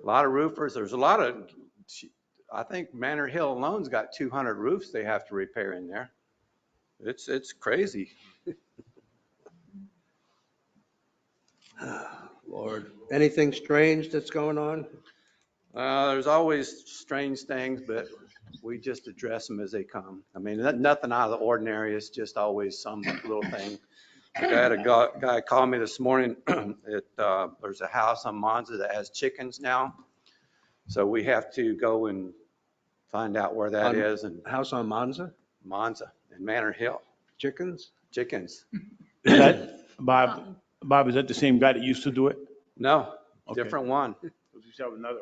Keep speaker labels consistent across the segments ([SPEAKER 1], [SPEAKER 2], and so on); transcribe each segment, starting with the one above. [SPEAKER 1] A lot of roofers, there's a lot of, I think Manor Hill alone's got 200 roofs they have to repair in there. It's, it's crazy.
[SPEAKER 2] Lord, anything strange that's going on?
[SPEAKER 1] Uh, there's always strange things, but we just address them as they come. I mean, no- nothing out of the ordinary. It's just always some little thing. Like I had a guy, guy call me this morning. It, uh, there's a house on Monza that has chickens now. So we have to go and find out where that
[SPEAKER 2] On-
[SPEAKER 1] is in
[SPEAKER 2] House on Monza,
[SPEAKER 1] Monza and Manor Hill,
[SPEAKER 2] chickens?
[SPEAKER 1] chickens.
[SPEAKER 3] Is that, Bob, Bob, is that the same guy that used to do it?
[SPEAKER 1] No,
[SPEAKER 3] Okay.
[SPEAKER 1] different one.
[SPEAKER 4] Let's just have another.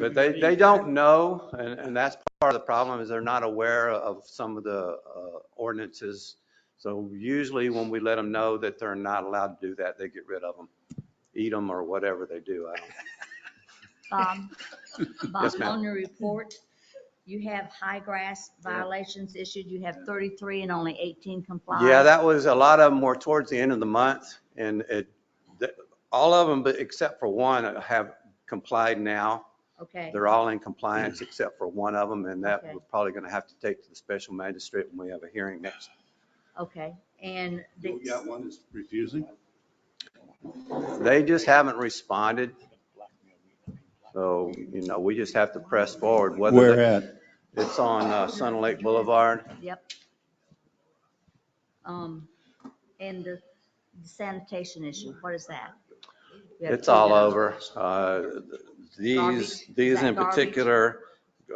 [SPEAKER 1] But they, they don't know, and, and that's part of the problem, is they're not aware of some of the uh, ordinances. So usually when we let them know that they're not allowed to do that, they get rid of them, eat them or whatever they do. I don't-
[SPEAKER 5] Bob, Bob,
[SPEAKER 1] ma'am.
[SPEAKER 5] Um, on your report, you have high grass violations issued. You have 33 and only 18 comply.
[SPEAKER 1] Yeah, that was, a lot of them were towards the end of the month, and it, th- all of them, but except for one, uh, have complied now.
[SPEAKER 5] Okay,
[SPEAKER 1] They're all in compliance except for one of them, and that
[SPEAKER 5] Okay.
[SPEAKER 1] we're probably going to have to take to the special magistrate when we have a hearing next.
[SPEAKER 5] okay. And the,
[SPEAKER 4] You got one that's refusing?
[SPEAKER 1] They just haven't responded. So, you know, we just have to press forward, whether
[SPEAKER 3] Where
[SPEAKER 1] that-
[SPEAKER 3] at?
[SPEAKER 1] it's on uh, Sun Lake Boulevard.
[SPEAKER 5] yep. Um, and the sanitation issue, what is that? You have
[SPEAKER 1] It's
[SPEAKER 5] two
[SPEAKER 1] all
[SPEAKER 5] dozen.
[SPEAKER 1] over. Uh, These,
[SPEAKER 5] Garbage.
[SPEAKER 1] these
[SPEAKER 5] Is that
[SPEAKER 1] in
[SPEAKER 5] garbage?
[SPEAKER 1] particular,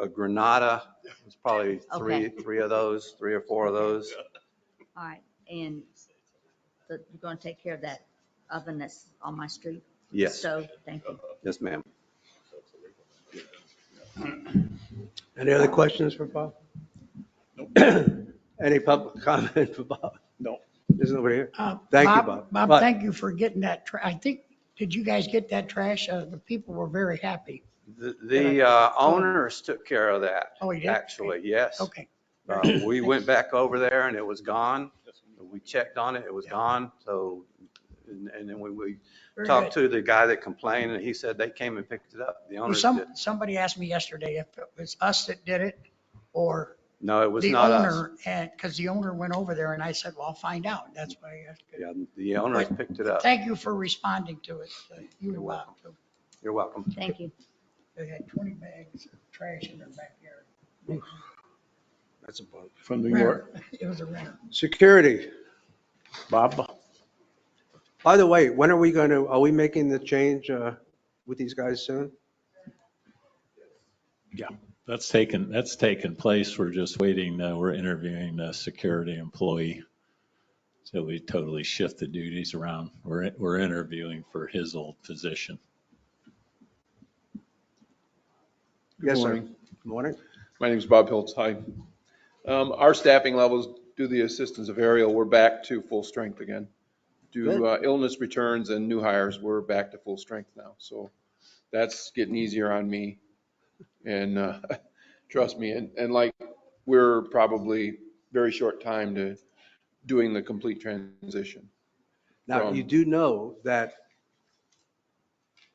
[SPEAKER 1] uh, Granada, it's probably three, three of those, three or four of those.
[SPEAKER 5] All right, and the- you're going to take care of that oven that's on my street?
[SPEAKER 1] Yes,
[SPEAKER 5] So, thank you.
[SPEAKER 1] yes, ma'am.
[SPEAKER 2] Any other questions for Bob? Any public comment for Bob?
[SPEAKER 4] No.
[SPEAKER 2] There's nobody here.
[SPEAKER 6] Uh,
[SPEAKER 2] Thank you, Bob. But-
[SPEAKER 6] Bob, thank you for getting that, tra- I think, did you guys get that trash? Uh, The people were very happy.
[SPEAKER 1] The- The uh, owners took care of that,
[SPEAKER 6] Oh, you did?
[SPEAKER 1] actually, yes.
[SPEAKER 6] Okay,
[SPEAKER 1] Uh, We went back over there and it was gone. We checked on it, it was gone. So, and and then we, we
[SPEAKER 6] very
[SPEAKER 1] talked
[SPEAKER 6] good.
[SPEAKER 1] to the guy that complained and he said they came and picked it up. The
[SPEAKER 6] Well,
[SPEAKER 1] owners
[SPEAKER 6] some,
[SPEAKER 1] did.
[SPEAKER 6] somebody asked me yesterday if it was us that did it or
[SPEAKER 1] No, it was
[SPEAKER 6] the
[SPEAKER 1] not us.
[SPEAKER 6] owner. And, because the owner went over there and I said, well, I'll find out. That's why I asked.
[SPEAKER 1] Yeah, the owners
[SPEAKER 6] But-
[SPEAKER 1] picked it up.
[SPEAKER 6] Thank you for responding to it. Uh, You're welcome.
[SPEAKER 1] You're welcome.
[SPEAKER 5] Thank you.
[SPEAKER 6] They had 20 bags of trash in their backyard.
[SPEAKER 2] That's a bummer.
[SPEAKER 3] From New York?
[SPEAKER 6] It was a renter.
[SPEAKER 2] Security.
[SPEAKER 3] Bob?
[SPEAKER 2] By the way, when are we going to, are we making the change uh, with these guys soon?
[SPEAKER 7] That's taken, that's taken place. We're just waiting, uh, we're interviewing the security employee. So we totally shift the duties around. We're, we're interviewing for his old position.
[SPEAKER 2] Yes, sir.
[SPEAKER 8] morning.
[SPEAKER 2] Morning.
[SPEAKER 8] My name is Bob Hiltz. Hi. Um, Our staffing levels, due to the assistance of Ariel, we're back to full strength again. Due to uh, illness returns and new hires, we're back to full strength now. So that's getting easier on me. And uh, trust me, and, and like, we're probably very short time to doing the complete transition.
[SPEAKER 2] Now, you
[SPEAKER 8] From-
[SPEAKER 2] do know that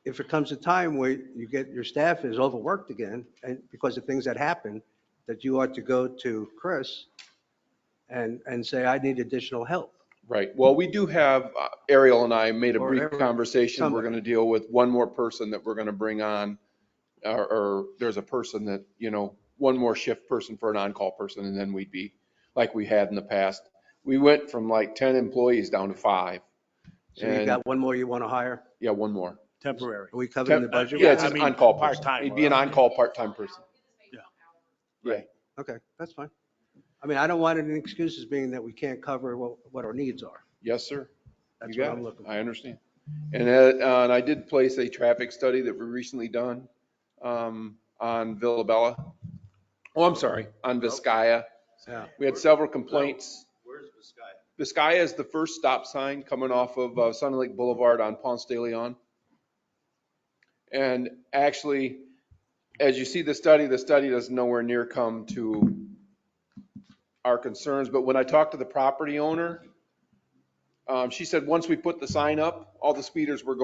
[SPEAKER 2] if it comes a time where you get, your staff is overworked again, and because of things that happen, that you ought to go to Chris and, and say, I need additional help.
[SPEAKER 8] Right. Well, we do have, uh, Ariel and I made a
[SPEAKER 2] Or
[SPEAKER 8] brief
[SPEAKER 2] every-
[SPEAKER 8] conversation. We're
[SPEAKER 2] somebody.
[SPEAKER 8] going to deal with one more person that we're going to bring on. Or, or there's a person that, you know, one more shift person for an on-call person and then we'd be like we had in the past. We went from like 10 employees down to five.
[SPEAKER 2] So you
[SPEAKER 8] And-
[SPEAKER 2] got one more you want to hire?
[SPEAKER 8] Yeah, one more.
[SPEAKER 3] Temporary.
[SPEAKER 2] Are we covered in the
[SPEAKER 3] Temp- uh,
[SPEAKER 2] budget?
[SPEAKER 8] Yeah, it's
[SPEAKER 3] I
[SPEAKER 8] an
[SPEAKER 3] mean,
[SPEAKER 8] on-call person.
[SPEAKER 3] part-time,
[SPEAKER 8] It'd be an
[SPEAKER 3] right?
[SPEAKER 8] on-call, part-time person.
[SPEAKER 3] Yeah.
[SPEAKER 8] Right.
[SPEAKER 2] Okay, that's fine. I mean, I don't want any excuses being that we can't cover what, what our needs are.
[SPEAKER 8] Yes, sir.
[SPEAKER 2] That's
[SPEAKER 8] You
[SPEAKER 2] what
[SPEAKER 8] got
[SPEAKER 2] I'm
[SPEAKER 8] it.
[SPEAKER 2] looking for.
[SPEAKER 8] I understand. And, uh, uh, and I did place a traffic study that we recently done, um, on Villabella. Oh, I'm sorry, on Viscaya.
[SPEAKER 2] Yeah.
[SPEAKER 8] We had several complaints. Where's Viscaya? Viscaya is the first stop sign coming off of uh, Sun Lake Boulevard on Ponce de Leon. And actually, as you see the study, the study does nowhere near come to our concerns, but when I talked to the property owner, um, she said, once we put the sign up, all the speeders were going.